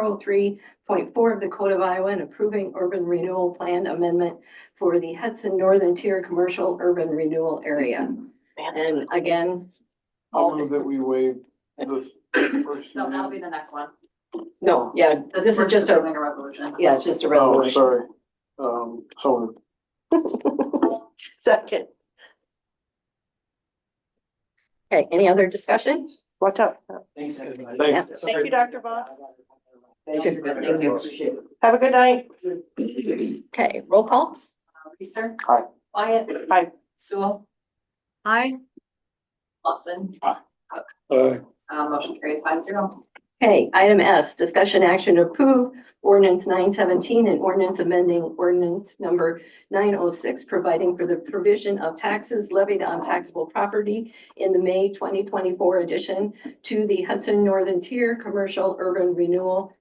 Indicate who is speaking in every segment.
Speaker 1: oh three point four of the Code of Iowa and approving urban renewal plan amendment for the Hudson Northern Tier Commercial Urban Renewal Area. And again,
Speaker 2: I'll move that we waive this first
Speaker 3: No, that'll
Speaker 2: hearing.
Speaker 3: be the next one.
Speaker 1: no, yeah, this is
Speaker 3: first
Speaker 1: just a,
Speaker 3: Doing a resolution.
Speaker 1: yeah, it's just a
Speaker 2: Oh,
Speaker 1: resolution.
Speaker 2: sorry. Um, so
Speaker 4: Second,
Speaker 1: Okay, any other discussion?
Speaker 4: watch out.
Speaker 5: Thanks, everybody.
Speaker 2: Thanks.
Speaker 4: Thank you, Dr. Voss.
Speaker 5: Thank you.
Speaker 3: Thank you, appreciate it.
Speaker 4: Have a good night.
Speaker 1: Okay, roll call?
Speaker 3: Uh, Reister.
Speaker 2: Aye.
Speaker 3: Wyatt.
Speaker 4: Aye.
Speaker 3: Sewell.
Speaker 6: Aye.
Speaker 3: Lawson.
Speaker 2: Uh,
Speaker 3: Uh, motion carries five zero.
Speaker 1: Okay, item S, discussion action to approve ordinance nine seventeen and ordinance amending ordinance number nine oh six, providing for the provision of taxes levied on taxable property in the May twenty twenty-four addition to the Hudson Northern Tier Commercial Urban Renewal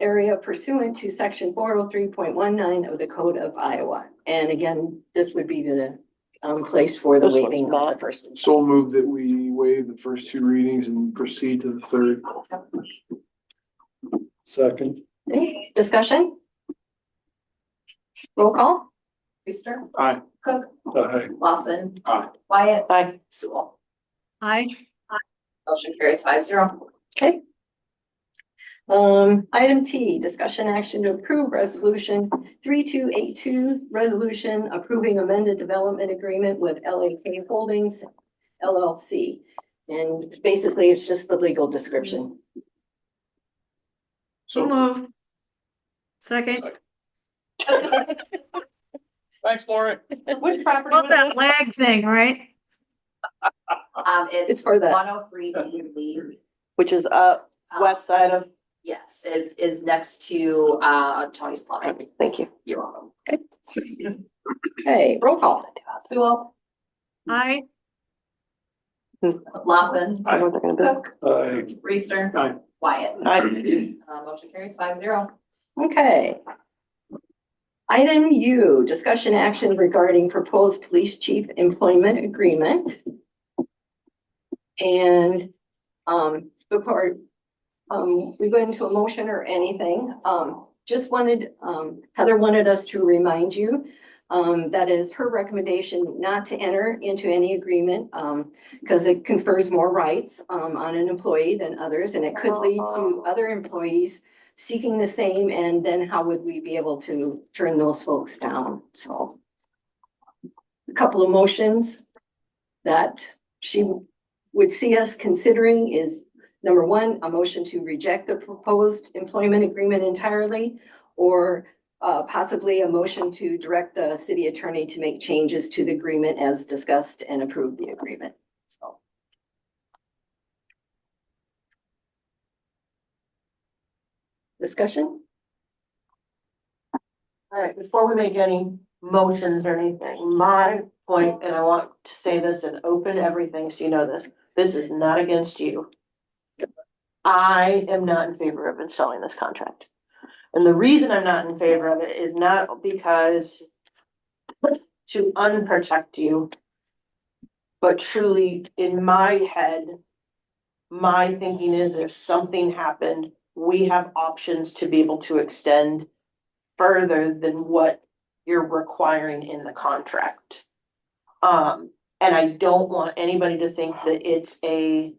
Speaker 1: area pursuant to section four oh three point one nine of the Code of Iowa. And again, this would be the um place for the
Speaker 4: This one's
Speaker 1: waiving of the
Speaker 4: not-
Speaker 1: first.
Speaker 2: so move that we waive the first two readings and proceed to the third. Second.
Speaker 1: Okay, Discussion? Roll call?
Speaker 3: Reister.
Speaker 2: Aye.
Speaker 3: Cook.
Speaker 2: Aye.
Speaker 3: Lawson.
Speaker 2: Aye.
Speaker 3: Wyatt.
Speaker 4: Bye.
Speaker 3: Sewell.
Speaker 6: Aye.
Speaker 3: Motion carries five zero.
Speaker 1: Okay. Um, item T, discussion action to approve resolution three two eight two, resolution approving amended development agreement with LAK Holdings LLC. And basically, it's just the legal description.
Speaker 6: So move. Second.
Speaker 2: Thanks, Lori.
Speaker 4: Which property?
Speaker 6: About
Speaker 4: was
Speaker 6: that lag thing, right?
Speaker 3: Um,
Speaker 1: It's
Speaker 3: it's
Speaker 1: for the,
Speaker 3: one oh three D Lee.
Speaker 4: it? Which is up
Speaker 3: Um,
Speaker 4: west side of,
Speaker 3: Yes, it is next to, uh, Tony's Plumbing.
Speaker 4: thank you.
Speaker 3: You're welcome.
Speaker 1: okay, roll call.
Speaker 3: Sewell.
Speaker 6: Aye.
Speaker 3: Lawson.
Speaker 4: I know what they're gonna do.
Speaker 3: Cook.
Speaker 2: Aye.
Speaker 3: Reister.
Speaker 2: Aye.
Speaker 3: Wyatt.
Speaker 4: Aye.
Speaker 3: Uh, motion carries five zero.
Speaker 1: Okay. Item U, discussion action regarding proposed police chief employment agreement. And, um, before, um, we go into a motion or anything, um, just wanted, um, Heather wanted us to remind you um, that is her recommendation not to enter into any agreement, um, because it confers more rights, um, on an employee than others, and it could lead to other employees seeking the same, and then how would we be able to turn those folks down? So a couple of motions that she would see us considering is, number one, a motion to reject the proposed employment agreement entirely, or uh, possibly a motion to direct the city attorney to make changes to the agreement as discussed and approve the agreement, so. Discussion?
Speaker 4: All right, before we make any motions or anything, my point, and I want to say this and open everything so you know this, this is not against you. I am not in favor of installing this contract. And the reason I'm not in favor of it is not because to unprotect you, but truly, in my head, my thinking is if something happened, we have options to be able to extend further than what you're requiring in the contract. Um, and I don't want anybody to think that it's a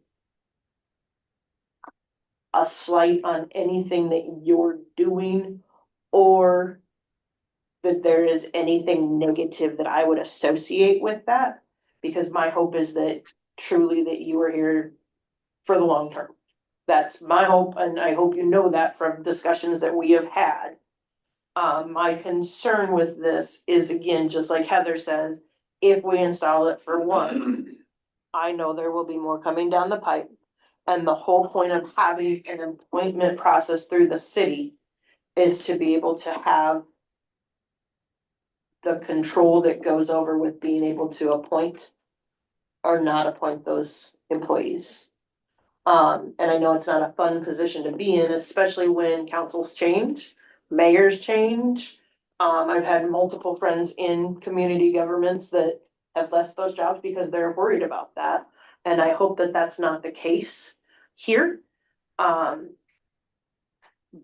Speaker 4: a slight on anything that you're doing or that there is anything negative that I would associate with that. Because my hope is that truly that you are here for the long term. That's my hope, and I hope you know that from discussions that we have had. Uh, my concern with this is again, just like Heather says, if we install it for one, I know there will be more coming down the pipe. And the whole point of having an appointment process through the city is to be able to have the control that goes over with being able to appoint or not appoint those employees. Um, and I know it's not a fun position to be in, especially when councils change mayors change. Um, I've had multiple friends in community governments that have left those jobs because they're worried about that. And I hope that that's not the case here. Um,